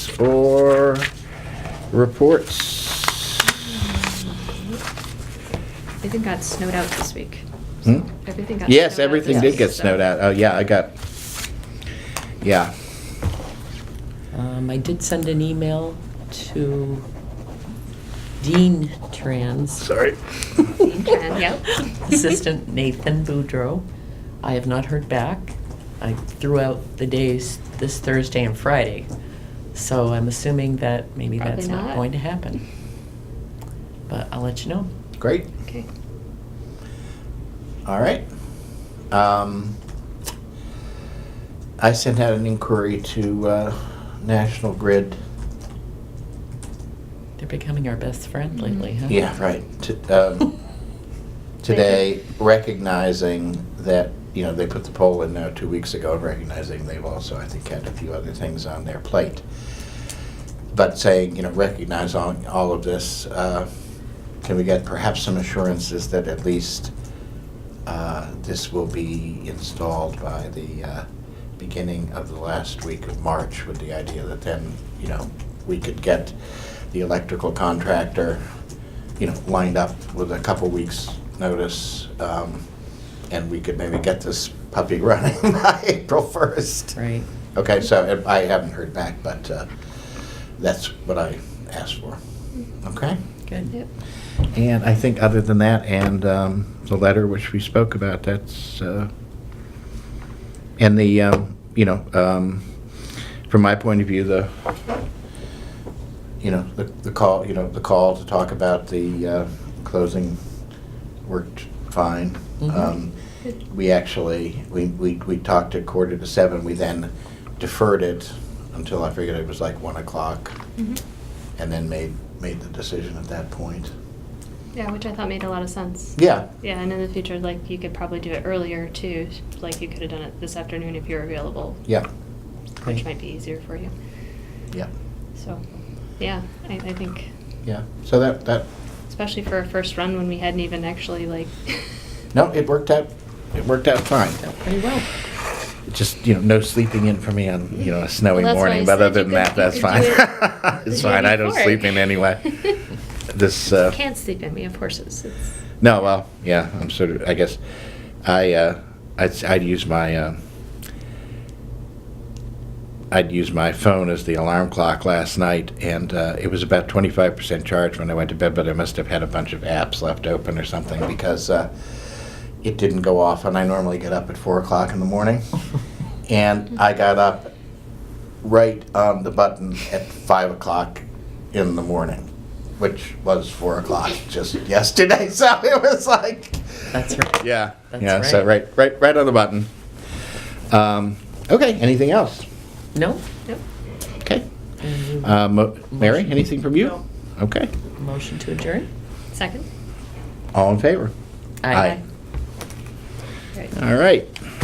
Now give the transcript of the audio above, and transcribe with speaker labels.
Speaker 1: or reports?
Speaker 2: Everything got snowed out this week.
Speaker 1: Hmm?
Speaker 2: Everything got.
Speaker 1: Yes,
Speaker 2: snowed out
Speaker 1: everything
Speaker 2: this
Speaker 1: did
Speaker 2: week,
Speaker 1: get
Speaker 2: so-
Speaker 1: snowed out. Oh, yeah, I got, yeah.
Speaker 3: Um, I did send an email to Dean Trans.
Speaker 1: Sorry.
Speaker 2: Dean Tran, yep.
Speaker 3: Assistant Nathan Boudreau. I have not heard back. I threw out the days this Thursday and Friday, so I'm assuming that maybe
Speaker 2: Probably
Speaker 3: that's
Speaker 2: not.
Speaker 3: not going to happen. But I'll let you know.
Speaker 1: Great,
Speaker 2: Okay.
Speaker 1: all right. Um, I sent out an inquiry to uh, National Grid.
Speaker 3: They're becoming our best friend
Speaker 2: Mm-hmm.
Speaker 3: lately, huh?
Speaker 1: Yeah, right. T- um, Today, recognizing that, you know, they put the poll in now two weeks ago, and recognizing they've also, I think, had a few other things on their plate. But saying, you know, recognize all, all of this, uh, can we get perhaps some assurances that at least uh, this will be installed by the uh, beginning of the last week of March, with the idea that then, you know, we could get the electrical contractor, you know, lined up with a couple weeks' notice, um, and we could maybe get this puppy running by April 1st.
Speaker 3: Right.
Speaker 1: Okay, so uh, I haven't heard back, but uh, that's what I asked for. Okay?
Speaker 3: Good.
Speaker 2: Yep.
Speaker 1: And I think other than that, and um, the letter which we spoke about, that's, uh, and the, um, you know, um, from my point of view, the, you know, the the call, you know, the call to talk about the uh, closing worked fine.
Speaker 3: Mhm.
Speaker 1: Um, We actually, we we we talked at quarter to seven, we then deferred it until I figured it was like 1 o'clock,
Speaker 2: Mhm.
Speaker 1: and then made, made the decision at that point.
Speaker 2: Yeah, which I thought made a lot of sense.
Speaker 1: Yeah,
Speaker 2: Yeah, and in the future, like, you could probably do it earlier too, like you could have done it this afternoon if you're available,
Speaker 1: yeah,
Speaker 2: which
Speaker 3: Great.
Speaker 2: might be easier for you.
Speaker 1: yeah,
Speaker 2: So, yeah, I, I think,
Speaker 1: yeah. So that, that,
Speaker 2: especially for a first run when we hadn't even actually like.
Speaker 1: no, it worked out, it worked out fine.
Speaker 3: Out pretty well.
Speaker 1: It's Just, you know, no sleeping in for me on, you know, a snowy
Speaker 2: Well, that's why I
Speaker 1: morning, but
Speaker 2: said
Speaker 1: other
Speaker 2: you
Speaker 1: than
Speaker 2: could-
Speaker 1: that,
Speaker 2: you
Speaker 1: that's
Speaker 2: could
Speaker 1: fine.
Speaker 2: do it
Speaker 1: It's
Speaker 2: the day
Speaker 1: fine, I don't
Speaker 2: before.
Speaker 1: sleep in anyway. This, uh,
Speaker 2: Can't sleep in, we have horses. It's-
Speaker 1: no, well, yeah, I'm sort of, I guess, I, uh, I'd, I'd use my, uh, I'd use my phone as the alarm clock last night, and uh, it was about 25% charged when I went to bed, but I must have had a bunch of apps left open or something because uh, it didn't go off, and I normally get up at 4 o'clock in the morning. and I got up right on the button at 5 o'clock in the morning, which was 4 o'clock just yesterday, so it was like.
Speaker 3: That's right.
Speaker 1: Yeah.
Speaker 3: That's
Speaker 1: yeah. So right,
Speaker 3: right.
Speaker 1: right, right on the button. Um, okay. Anything else?
Speaker 3: No?
Speaker 2: Nope.
Speaker 1: Okay.
Speaker 3: And
Speaker 1: Uh, Mo- Mary, anything from you?
Speaker 3: No.
Speaker 1: Okay.
Speaker 3: Motion to adjourn?
Speaker 2: Second?
Speaker 1: All in favor? Aye.
Speaker 2: Right.
Speaker 1: All right.